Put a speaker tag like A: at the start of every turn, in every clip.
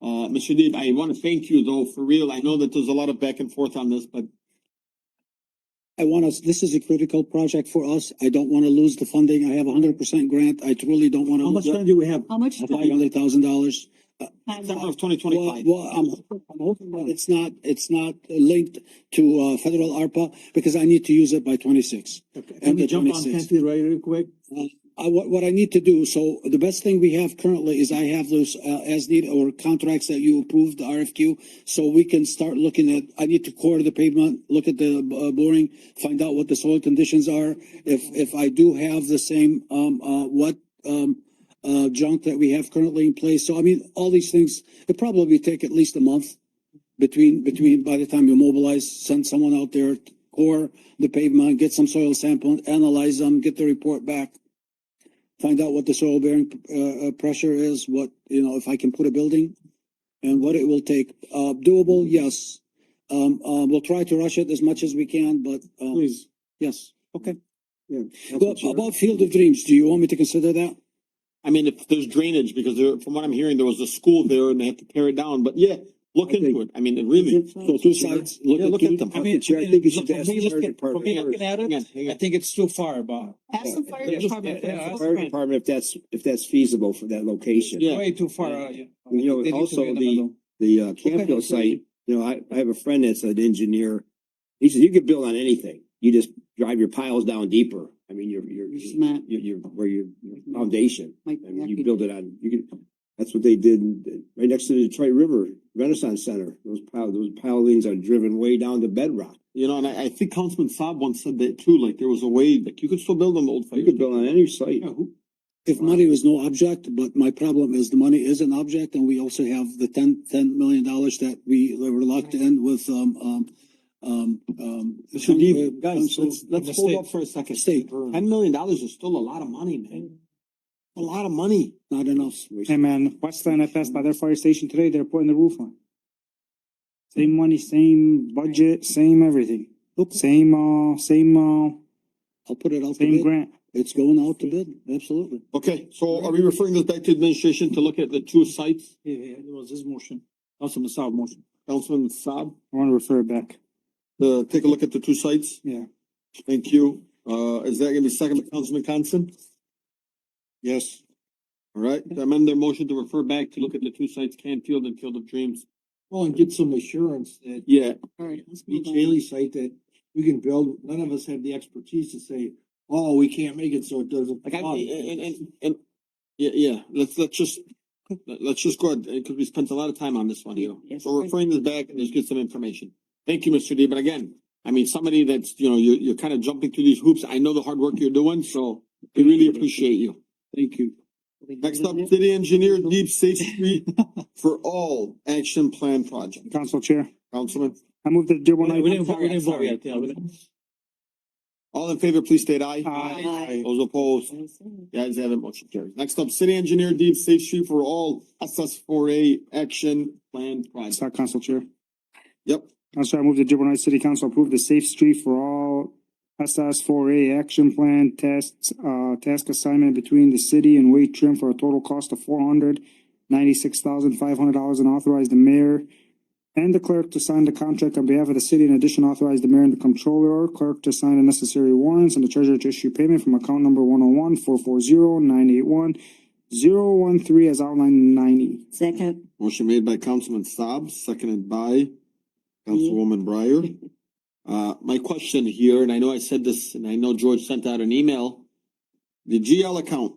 A: Uh, Mr. Deeb, I want to thank you though, for real. I know that there's a lot of back and forth on this, but
B: I want us, this is a critical project for us. I don't wanna lose the funding. I have a hundred percent grant. I truly don't wanna.
A: how much
B: lose
A: time do we have?
C: How much?
B: Five hundred thousand dollars.
A: September of twenty twenty
B: Well,
A: five.
B: well, I'm, I'm hoping that it's not, it's not linked to, uh, federal ARPA because I need to use it by twenty-six.
D: Can we
B: Under
D: jump on
B: 26.
D: Canfield right real quick?
B: I, what, what I need to do, so the best thing we have currently is I have those, uh, as need or contracts that you approved, the RFQ. So we can start looking at, I need to core the pavement, look at the uh, boring, find out what the soil conditions are. If, if I do have the same, um, uh, what, um, uh, junk that we have currently in place. So I mean, all these things, it probably take at least a month between, between, by the time you mobilize, send someone out there, core the pavement, get some soil sample, analyze them, get the report back find out what the soil bearing uh, uh, pressure is, what, you know, if I can put a building and what it will take. Uh, doable, yes. Um, uh, we'll try to rush it as much as we can, but, um,
D: Please.
B: yes. Okay.
D: Council
B: Well,
D: Chair.
B: About Field of Dreams, do you want me to consider that?
A: I mean, if there's drainage, because there, from what I'm hearing, there was a school there and they had to tear it down, but yeah, look
D: I think-
A: into it. I mean, it really.
B: So two sides, look
A: Yeah,
B: at.
A: look
B: two-
A: at them.
E: I mean,
B: Chair, I think you should
E: from
B: ask
E: me
B: the
E: looking-
B: fire
E: from me
B: department.
E: looking at
A: Hang on,
E: it,
A: hang
E: I
A: on.
E: think it's too far, Bob.
C: Ask the fire
E: Yeah, just-
C: department.
E: yeah, ask
C: first.
D: Fire department, if that's, if that's feasible for that location.
A: Yeah.
E: Way too far. uh, yeah.
D: You know,
E: They need to
D: also
E: be in
D: the-
E: middle.
D: The uh, Campfield site, you know, I, I have a friend that's an engineer. He says you could build on anything. You just drive your piles down deeper. I mean, your, your,
C: It's
D: your,
C: not
D: your, where your your foundation.
C: like
D: I mean,
C: that
D: you
C: big.
D: build it on, you can, that's what they did in- right next to the Detroit River Renaissance Center. Those pile, those pilings are driven way down to bedrock.
A: You know, and I, I think Councilman Saab once said that too, like there was a way, like you could still build on the old fire.
D: You could build on any site.
A: Yeah, who-
B: If money was no object, but my problem is the money is an object and we also have the ten, ten million dollars that we were locked in with, um, um, um, um.
A: Mr. Deeb,
B: uh,
A: guys,
B: Council-
A: let's, let's hold up for a second.
B: State.
A: Ten million dollars is still a lot of money, man. A lot of money.
B: Not enough.
F: Hey man, Westland, I passed by their fire station today, they're putting the roof on. Same money, same budget, same everything,
B: Okay,
F: same uh, same uh,
B: I'll put it out. to
F: same
B: bid.
F: grant.
B: It's going out to bid, absolutely.
A: Okay, so are we referring this back to administration to look at the two sites,
E: Yeah, yeah, it was his motion, Councilman Saab motion.
A: Councilman Saab?
F: I wanna refer it back,
A: Uh, take a look at the two sites.
F: yeah.
A: Thank you. Uh, is that gonna be second by Councilman Constant? Yes. All right, amend their motion to refer back to look at the two sites, Canfield and Field of Dreams.
E: Well, and get some assurance that
A: Yeah,
C: All right, let's move
E: each
A: Mm-hmm.
C: on.
E: Haley site that we can build, none of us have the expertise to say, oh, we can't make it, so it doesn't.
A: like I, and, and, and, yeah, yeah, let's, let's just, let- let's just go ahead, because we spent a lot of time on this one here.
C: Yes.
A: So referring this back and just get some information. Thank you, Mr. D, but again, I mean, somebody that's, you know, you, you're kind of jumping through these hoops. I know the hard work you're doing, so we really appreciate you.
B: Thank you.
A: Next up, city engineer, deep safe street for all action plan project.
F: Council Chair,
A: Councilman,
F: I move that Dearborn
E: We
F: Heights,
E: didn't vote, we didn't vote yet, yeah. we didn't-
A: all in favor, please state aye.
F: Aye.
C: Aye.
A: Those opposed,
C: Aye.
A: the ayes have it, motion carries. Next up, city engineer, deep safe street for all SS four A action plan
F: it's
A: project.
F: not Council Chair.
A: Yep,
F: Council, I move that Dearborn Heights City Council approve the safe street for all SS four A action plan tests, uh, task assignment between the city and Wade Trim for a total cost of four hundred ninety-six thousand five hundred dollars and authorize the mayor and the clerk to sign the contract on behalf of the city. In addition, authorize the mayor and the comptroller, clerk to sign the necessary warrants and the treasurer to issue payment from account number one oh one four four zero nine eight one zero one three as outlined in nine E.
C: Second,
A: motion made by Councilman Saab, seconded by Councilwoman Breyer. Uh, my question here, and I know I said this, and I know George sent out an email. The GL account,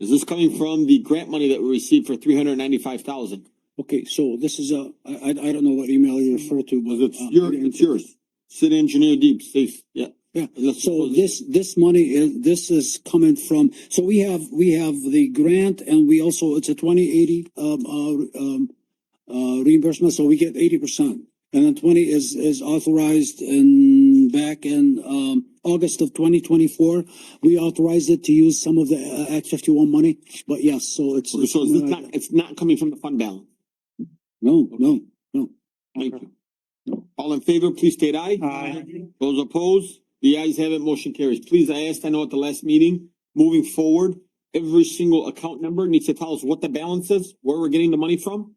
A: is this coming from the grant money that we received for three hundred ninety-five thousand?
B: Okay, so this is a, I, I, I don't know what email you refer to, but.
A: Was it
B: uh,
A: your, it's yours? City engineer deep, safe, yeah.
B: Yeah,
A: Let's
B: So
A: suppose-
B: this, this money is, this is coming from, so we have, we have the grant and we also, it's a twenty eighty, um, uh, um, uh, reimbursement, so we get eighty percent. And then twenty is, is authorized in, back in, um, August of twenty twenty-four. We authorized it to use some of the uh, Act fifty-one money, but yes, so it's.
A: So it's not, it's not coming from the fund balance.
B: No, no,
A: Thank you. All in favor, please state aye.
F: Aye.
A: Those opposed, the ayes have it, motion carries. Please, I asked, I know at the last meeting, moving forward, every single account number needs to tell us what the balance is, where we're getting the money from.